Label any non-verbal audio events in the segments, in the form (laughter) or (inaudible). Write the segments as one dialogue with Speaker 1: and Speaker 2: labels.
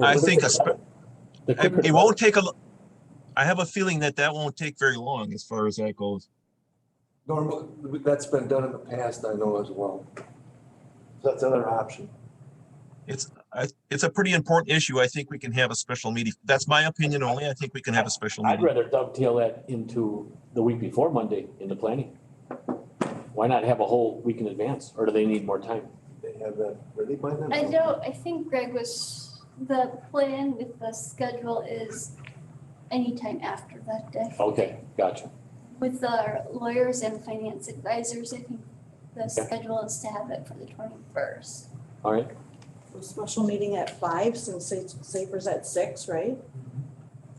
Speaker 1: I think a spe-
Speaker 2: The quicker-
Speaker 1: it it won't take a, l- I have a feeling that that won't take very long as far as that goes.
Speaker 3: Normal, that's been done in the past, I know as well. That's another option.
Speaker 1: It's, I, it's a pretty important issue. I think we can have a special meeting. That's my opinion only. I think we can have a special
Speaker 2: I'd
Speaker 1: meeting.
Speaker 2: rather dovetail that into the week before Monday into planning. Why not have a whole week in advance, or do they need more time?
Speaker 3: They have that ready by then?
Speaker 4: I don't, I think Greg was, the plan with the schedule is anytime after that day.
Speaker 2: Okay, gotcha.
Speaker 4: With our lawyers and finance advisors, I think the
Speaker 2: Okay.
Speaker 4: schedule is to have it for the twenty-first.
Speaker 2: All right,
Speaker 5: Special meeting at five since Sa- Safer's at six, right?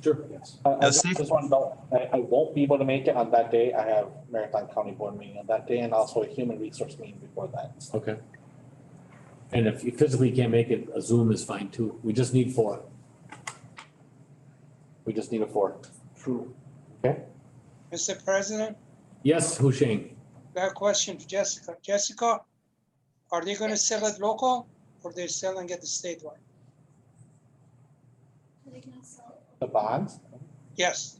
Speaker 6: Sure, yes. I, I
Speaker 1: Yeah,
Speaker 6: just
Speaker 1: safe-
Speaker 6: want to know, I, I won't be able to make it on that day. I have Marathon County Board meeting on that day and also a human resource meeting before that. So
Speaker 2: okay. And if you physically can't make it, a Zoom is fine too. We just need four. We just need a four.
Speaker 6: True.
Speaker 7: Mr. President,
Speaker 2: Yes, Husheng,
Speaker 7: I have a question for Jessica. Jessica, are they gonna sell it local or they're selling it statewide?
Speaker 6: The bonds,
Speaker 7: Yes,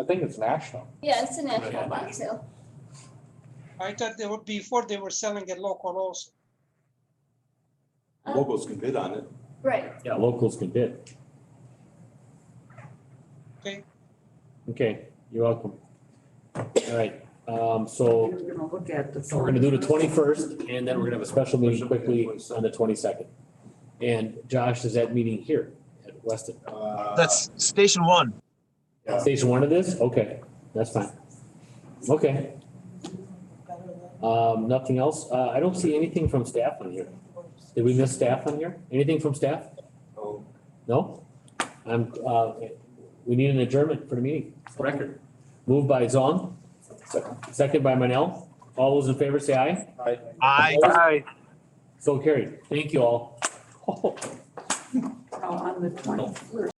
Speaker 6: I think it's national.
Speaker 4: Yeah, it's a national bond sale.
Speaker 7: I thought they were, before they were selling it local also.
Speaker 4: Uh,
Speaker 8: Locals can bid on it.
Speaker 4: Right,
Speaker 2: yeah, locals can bid.
Speaker 7: Okay.
Speaker 2: Okay, you're welcome. All right, um, so
Speaker 9: You're gonna look at the.
Speaker 2: We're gonna do the twenty-first, and then we're gonna have a special meeting quickly on the twenty-second. And Josh is at meeting here at Weston.
Speaker 1: That's station one.
Speaker 6: Yeah.
Speaker 2: Station one of this? Okay, that's fine. Okay,
Speaker 5: Better than-
Speaker 2: um, nothing else? Uh, I don't see anything from staff on here. Did we miss staff on here? Anything from staff?
Speaker 3: Oh,
Speaker 2: No? I'm, uh, we need an adjournment for the meeting. Record. Moved by Zong, second by Manel. All those in favor say aye.
Speaker 6: I,
Speaker 1: I,
Speaker 2: So carried. Thank you all. (laughs)
Speaker 9: On the twenty-first.